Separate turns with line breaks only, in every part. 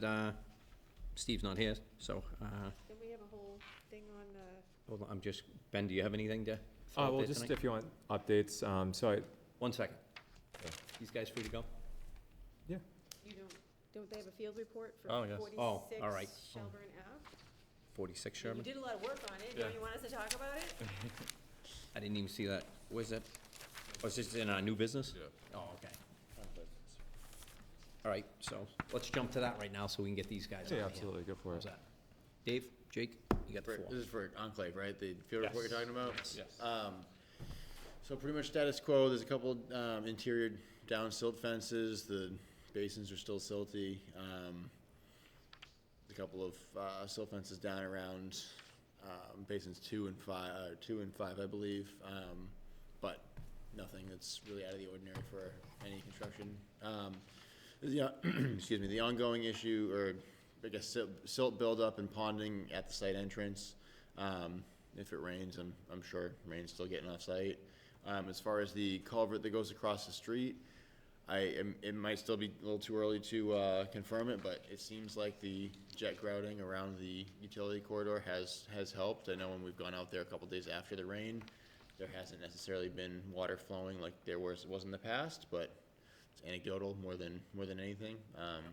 that uh, Steve's not here, so, uh,
Then we have a whole thing on, uh,
hold on, I'm just, Ben, do you have anything to? throw
Uh,
out
well,
there
just
tonight?
if you want updates, um, so I,
One second.
Yeah.
These guys free to go?
you don't, don't they have a field report for
Oh, yes.
Oh, all right.
forty-six Shelburne Ave?
46
You
Sherman?
did a lot of work on it, don't
Yeah.
you want us to talk about it?
I didn't even see that. Where's that? Was this in our new business?
Yeah.
Oh, okay. All right, so let's jump to that right now so we can get these guys out of here.
yeah, absolutely, go for
How's
it.
that? Dave, Jake, you got the
For-
floor.
This is for Enclave, right? The field report you're talking about?
Yes.
Um, so pretty much status quo, there's a couple, um, interior down silt fences, the basins are still silty. Um, a couple of, uh, silt fences down around, um, basins two and five, uh, two and five, I believe. Um, but nothing that's really out of the ordinary for any construction. Um, the, uh, excuse me, the ongoing issue, or I guess silt- silt buildup and ponding at the site entrance. Um, If it rains, I'm, I'm sure rain's still getting off site. Um, As far as the culvert that goes across the street, I, am- it might still be a little too early to uh, confirm it, but it seems like the jet grouting around the utility corridor has, has helped. I know when we've gone out there a couple days after the rain, there hasn't necessarily been water flowing like there was, was in the past, but it's anecdotal more than, more than anything. Um,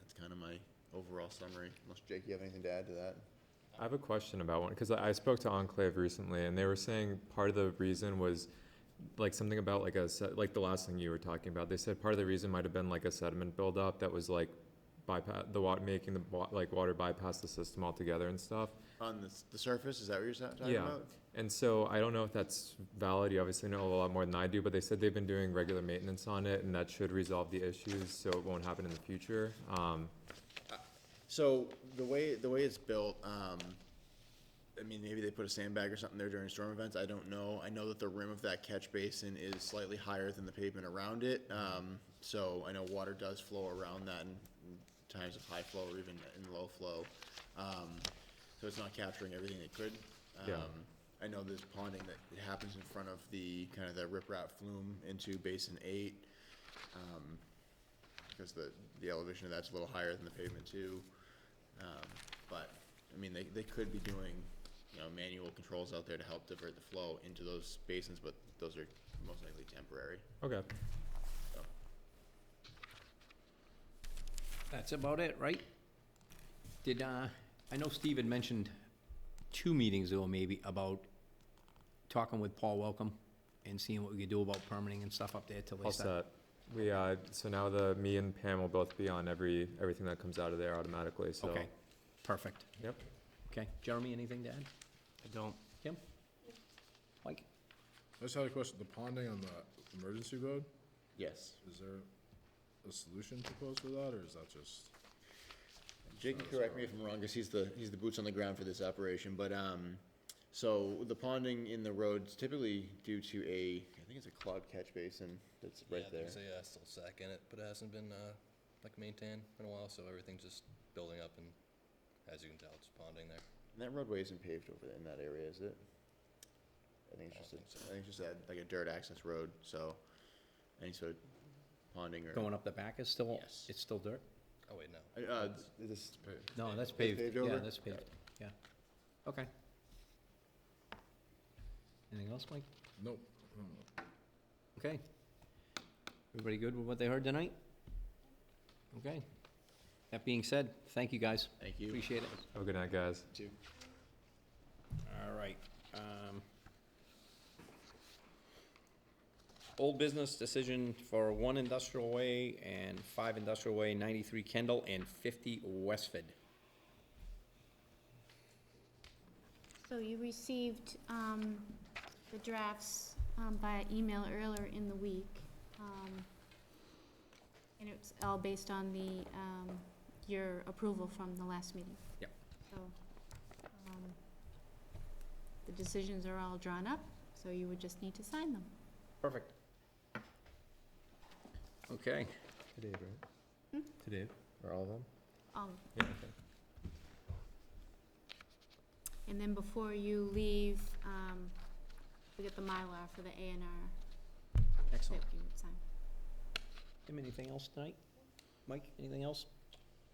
That's kind of my overall summary, unless Jake, you have anything to add to that?
I have a question about one, because I, I spoke to Enclave recently, and they were saying part of the reason was like something about like a, se- like the last thing you were talking about, they said part of the reason might have been like a sediment buildup that was like bypass, the wa, making the wa, like water bypass the system altogether and stuff.
On the, s- the surface, is that what you're sa- talking
Yeah,
about?
and so I don't know if that's valid, you obviously know a lot more than I do, but they said they've been doing regular maintenance on it, and that should resolve the issues, so it won't happen in the future, um,
So the way, the way it's built, um, I mean, maybe they put a sandbag or something there during storm events, I don't know. I know that the rim of that catch basin is slightly higher than the pavement around it. Um, so I know water does flow around that in in times of high flow or even in low flow. Um, so it's not capturing everything it could.
Yeah.
Um, I know there's ponding that happens in front of the, kind of the riprap flume into basin eight. Um, because the, the elevation of that's a little higher than the pavement too. Um, but, I mean, they, they could be doing, you know, manual controls out there to help divert the flow into those basins, but those are most likely temporary.
okay.
That's about it, right? Did, uh, I know Steve had mentioned two meetings ago maybe about talking with Paul Welcome and seeing what we could do about permitting and stuff up there till they
All
start.
set. We, uh, so now the, me and Pam will both be on every, everything that comes out of there automatically, so.
Okay, perfect.
Yep.
Okay, Jeremy, anything to add?
I don't.
Kim? Mike?
I just had a question, the ponding on the emergency road,
Yes.
is there a solution proposed for that, or is that just?
Jake can correct me if I'm wrong, because he's the, he's the boots on the ground for this operation, but, um, so the ponding in the roads typically due to a, I think it's a clogged catch basin that's right there.
There's a uh, still sack in it, but it hasn't been uh, like maintained in a while, so everything's just building up, and as you can tell, it's ponding there.
And that roadway isn't paved over there in that area, is it? I think it's just, a- I think it's just a- like a dirt access road, so any sort of ponding or.
Going up the back is still,
Yes.
it's still dirt?
Oh wait, no.
Uh, Uh, this,
No, that's
It's
paved.
paved
Yeah,
over?
that's paved, yeah. Okay. Anything else, Mike?
Nope.
Okay. Everybody good with what they heard tonight? Okay. That being said, thank you, guys.
thank you.
Appreciate it.
Have a good night, guys.
All right. um, Old business decision for one industrial way and five industrial way, ninety-three Kendall and fifty Westford.
So you received um, the drafts um, by email earlier in the week. um, And it's all based on the, um, your approval from the last meeting.
Yep.
So um, the decisions are all drawn up, so you would just need to sign them.
Perfect. Okay.
Today, right? Today, Hmm? or all of them?
All of
Yeah, okay.
And then before you leave, um, we get the Mylar for the A and R that
Excellent.
you would sign.
Tim, anything else tonight? Mike, anything else?